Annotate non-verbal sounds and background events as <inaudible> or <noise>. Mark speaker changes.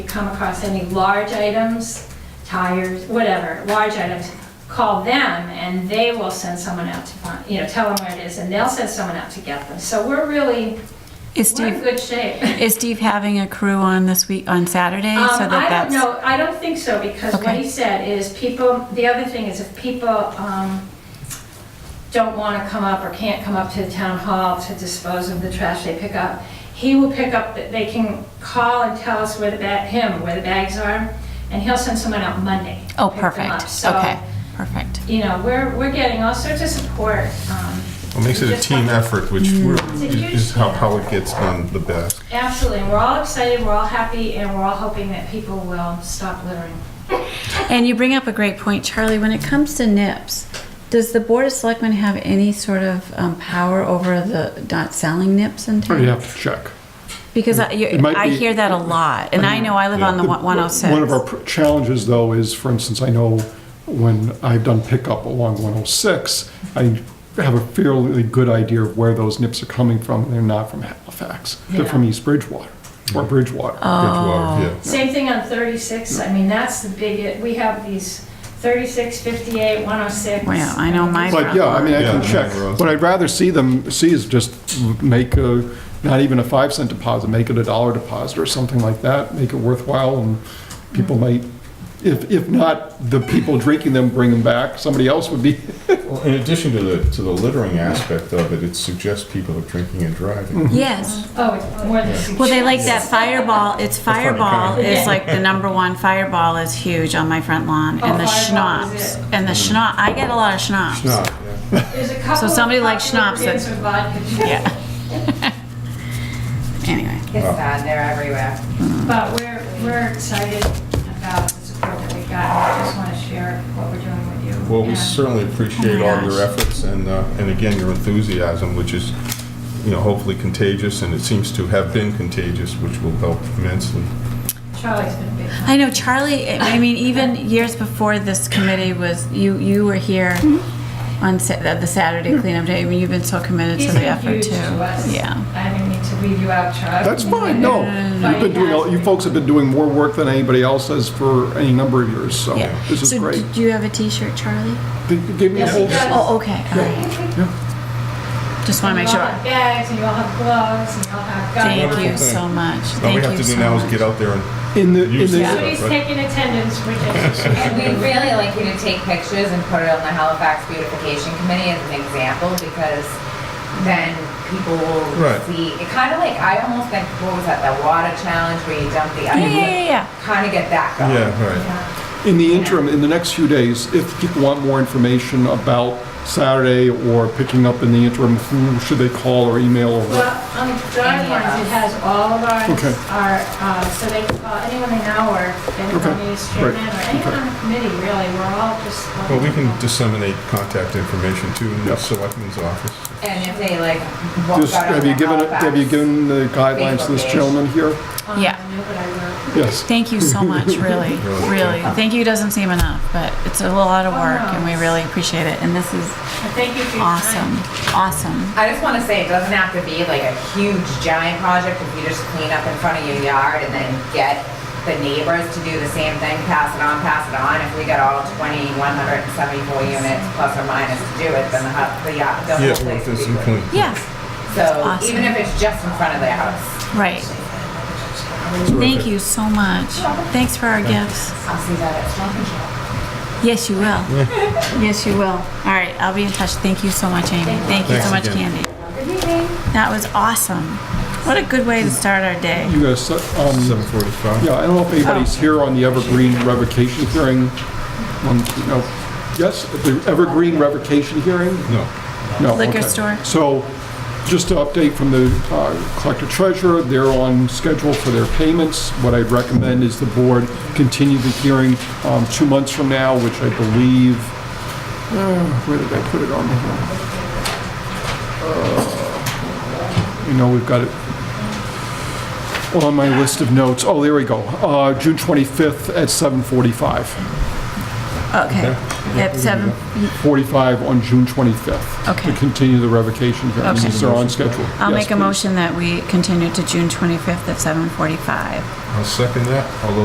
Speaker 1: come across any large items, tires, whatever, large items, call them and they will send someone out to find, you know, tell them where it is and they'll send someone out to get them. So we're really,
Speaker 2: Is
Speaker 1: we're in
Speaker 2: Steve,
Speaker 1: good shape.
Speaker 2: is Steve having a crew on this week, on Saturday?
Speaker 1: Um,
Speaker 2: so that that's
Speaker 1: I don't know, I don't think so, because what
Speaker 2: Okay.
Speaker 1: he said is people, the other thing is if people um, don't want to come up or can't come up to the town hall to dispose of the trash they pick up, he will pick up, the- they can call and tell us where the bag, him, where the bags are, and he'll send someone out Monday. to
Speaker 2: Oh,
Speaker 1: pick them up.
Speaker 2: perfect.
Speaker 1: So,
Speaker 2: Okay, perfect.
Speaker 1: You know, we're, we're getting all sorts of support. um,
Speaker 3: It makes
Speaker 1: we
Speaker 3: it a
Speaker 1: just
Speaker 3: team
Speaker 1: have-
Speaker 3: effort, which
Speaker 2: Mm.
Speaker 3: we're-
Speaker 1: It's a huge
Speaker 3: is how,
Speaker 1: team
Speaker 3: how
Speaker 1: effort.
Speaker 3: it gets done the best.
Speaker 1: Absolutely, and we're all excited, we're all happy, and we're all hoping that people will stop littering.
Speaker 2: And you bring up a great point, Charlie. When it comes to nips, does the Board of Selectmen have any sort of um, power over the not selling nips in
Speaker 4: Oh,
Speaker 2: town?
Speaker 4: You have to check.
Speaker 2: Because I, you,
Speaker 4: It might
Speaker 2: I
Speaker 4: be-
Speaker 2: hear that a lot, and I know I live on the
Speaker 4: The-
Speaker 2: one- 106.
Speaker 4: One of our pr- challenges, though, is, for instance, I know when I've done pickup along 106, I have a fairly good idea of where those nips are coming from. They're not from Halifax. They're from East Bridgewater or Bridgewater.
Speaker 3: Oh.
Speaker 2: Oh.
Speaker 3: Bridgewater, yeah.
Speaker 1: Same thing on 36, I mean, that's the big, we have these 36, 58, 106.
Speaker 2: Wow, I know my-
Speaker 4: But yeah, I mean, I can
Speaker 3: Yeah.
Speaker 4: check. What I'd rather see them, see is just make a, not even a five cent deposit, make it a dollar deposit or something like that, make it worthwhile, and people might, if, if not, the people drinking them bring them back, somebody else would be,
Speaker 3: Well, in addition to the, to the littering aspect of it, it suggests people are drinking and driving.
Speaker 2: yes.
Speaker 1: Oh, it's more than
Speaker 2: Well, they
Speaker 1: suggested.
Speaker 2: like that fireball. It's
Speaker 3: funny,
Speaker 2: fireball
Speaker 3: kinda.
Speaker 2: is like the number one. Fireball is huge on my front lawn,
Speaker 1: Oh,
Speaker 2: and the
Speaker 1: Fireball is
Speaker 2: schnapps, and
Speaker 4: Mm.
Speaker 2: the schnapp. I get a lot of schnapps.
Speaker 3: It's not, yeah.
Speaker 1: There's a couple of
Speaker 2: somebody like
Speaker 1: popular
Speaker 2: schnapps
Speaker 1: brands
Speaker 2: that-
Speaker 1: of vodka,
Speaker 2: Yeah.
Speaker 1: <laughs>
Speaker 2: anyway.
Speaker 5: It's bad, they're everywhere.
Speaker 1: but we're, we're excited about the support that we got. We just want to share what we're doing with you.
Speaker 3: Well, we
Speaker 1: And-
Speaker 3: certainly appreciate all your efforts and, uh, and again, your enthusiasm, which is, you know, hopefully contagious, and it seems to have been contagious, which will help immensely.
Speaker 1: Charlie's been a big help.
Speaker 2: I know Charlie. I I mean, even years before this committee was, you you were here on Sa- the the Saturday cleanup day. I mean, you've been so committed
Speaker 1: Mm-hmm. He's
Speaker 2: to the
Speaker 1: been
Speaker 2: effort
Speaker 1: huge
Speaker 2: too.
Speaker 1: to us.
Speaker 2: Yeah.
Speaker 1: I didn't mean to leave you out, Charlie. <laughs>
Speaker 4: that's fine, no. You've been doing, a- you folks have been doing more work than anybody else has for any number of years, so
Speaker 2: Yeah.
Speaker 4: this is
Speaker 2: so
Speaker 4: great.
Speaker 2: do you have a T-shirt, Charlie?
Speaker 4: They gave me a
Speaker 1: Yes,
Speaker 4: whole,
Speaker 1: he does.
Speaker 2: Oh, okay. all right. Just want to make
Speaker 1: You all
Speaker 2: sure.
Speaker 1: have bags, and you all have gloves, and you all have guns.
Speaker 2: Thank you
Speaker 3: Thank
Speaker 2: so
Speaker 3: you.
Speaker 2: much.
Speaker 3: All
Speaker 2: Thank
Speaker 3: we
Speaker 2: you
Speaker 3: have to
Speaker 2: so
Speaker 3: do now is
Speaker 2: much.
Speaker 3: get out there and
Speaker 4: in the, in
Speaker 3: Use
Speaker 4: the,
Speaker 3: that.
Speaker 1: Somebody's taking attendance, which is
Speaker 5: And we'd really like you to take pictures and put it on the Halifax Beautification Committee as an example, because then people will
Speaker 3: Right.
Speaker 5: see, it kind of like, I almost think, what was that, the water challenge where you dump the ice?
Speaker 2: Yeah, yeah, yeah, yeah.
Speaker 5: Kind of get that
Speaker 3: Mm-hmm.
Speaker 5: going.
Speaker 3: Yeah, right.
Speaker 4: in the interim, in the next few days, if people want more information about Saturday or picking up in the interim, who should they call or email or?
Speaker 1: Well, on the guidelines, it has all of our,
Speaker 4: Okay.
Speaker 1: our, uh, so they can call anyone in our, anyone on
Speaker 4: Okay,
Speaker 1: the street,
Speaker 4: great,
Speaker 1: or anyone on the committee, really, we're all just.
Speaker 3: Well, we can disseminate contact information to the
Speaker 4: Yep.
Speaker 3: selectman's office.
Speaker 5: And if they like, walk
Speaker 4: Just,
Speaker 5: out on
Speaker 4: have
Speaker 5: the
Speaker 4: you given, it- have you
Speaker 5: Halifax-
Speaker 4: given the guidelines to this gentleman here?
Speaker 1: Um,
Speaker 2: Yeah.
Speaker 1: no, but I will.
Speaker 4: Yes.
Speaker 2: Thank you so
Speaker 3: <laughs>
Speaker 2: much, really,
Speaker 3: Really.
Speaker 2: really. Thank you doesn't seem enough, but it's a lot of
Speaker 1: Oh,
Speaker 2: work,
Speaker 1: no.
Speaker 2: and we really appreciate it. And this is
Speaker 1: But Thank you for your
Speaker 2: awesome,
Speaker 1: time.
Speaker 2: awesome.
Speaker 5: I just want to say, it doesn't have to be like a huge giant project if you just clean up in front of your yard and then get the neighbors to do the same thing, pass it on, pass it on. If we got all 2,174 units plus or minus to do it, then the, hu- the, yacht- the
Speaker 3: Yeah, well,
Speaker 5: whole place
Speaker 3: if
Speaker 5: would
Speaker 3: there's
Speaker 5: be
Speaker 3: some
Speaker 5: clean.
Speaker 3: point.
Speaker 2: Yeah,
Speaker 5: So
Speaker 2: awesome.
Speaker 5: even if it's just in front of the house,
Speaker 2: right. Thank you so much. Thanks for our gifts.
Speaker 5: I'll see that at Stop and Shop.
Speaker 2: Yes, you will. Yes, you will. All right, I'll be in touch. Thank you so much, Amy. Thank you so
Speaker 3: Thanks
Speaker 2: much,
Speaker 3: again.
Speaker 2: Candy. That was awesome. What a good way to start our day.
Speaker 4: You guys, um,
Speaker 3: Seven forty-five.
Speaker 4: yeah, I don't know if anybody's here on the Evergreen revocation hearing. One, no, yes, the Evergreen revocation hearing?
Speaker 3: No.
Speaker 4: No,
Speaker 2: Liquor
Speaker 4: okay.
Speaker 2: store.
Speaker 4: So, just to update from the uh, collector treasurer, they're on schedule for their payments. What I'd recommend is the board continue the hearing um, two months from now, which I believe, uh, where did I put it on? Uh, You know, we've got it on my list of notes. Oh, there we go. Uh, June 25th at 7:45.
Speaker 2: Okay. At seven,
Speaker 4: 45 on June 25th.
Speaker 2: Okay.
Speaker 4: To continue the revocation hearing,
Speaker 2: Okay.
Speaker 4: since they're on schedule.
Speaker 2: I'll
Speaker 4: Yes,
Speaker 2: make a
Speaker 4: please.
Speaker 2: motion that we continue to June 25th at 7:45.
Speaker 3: I'll second that. All those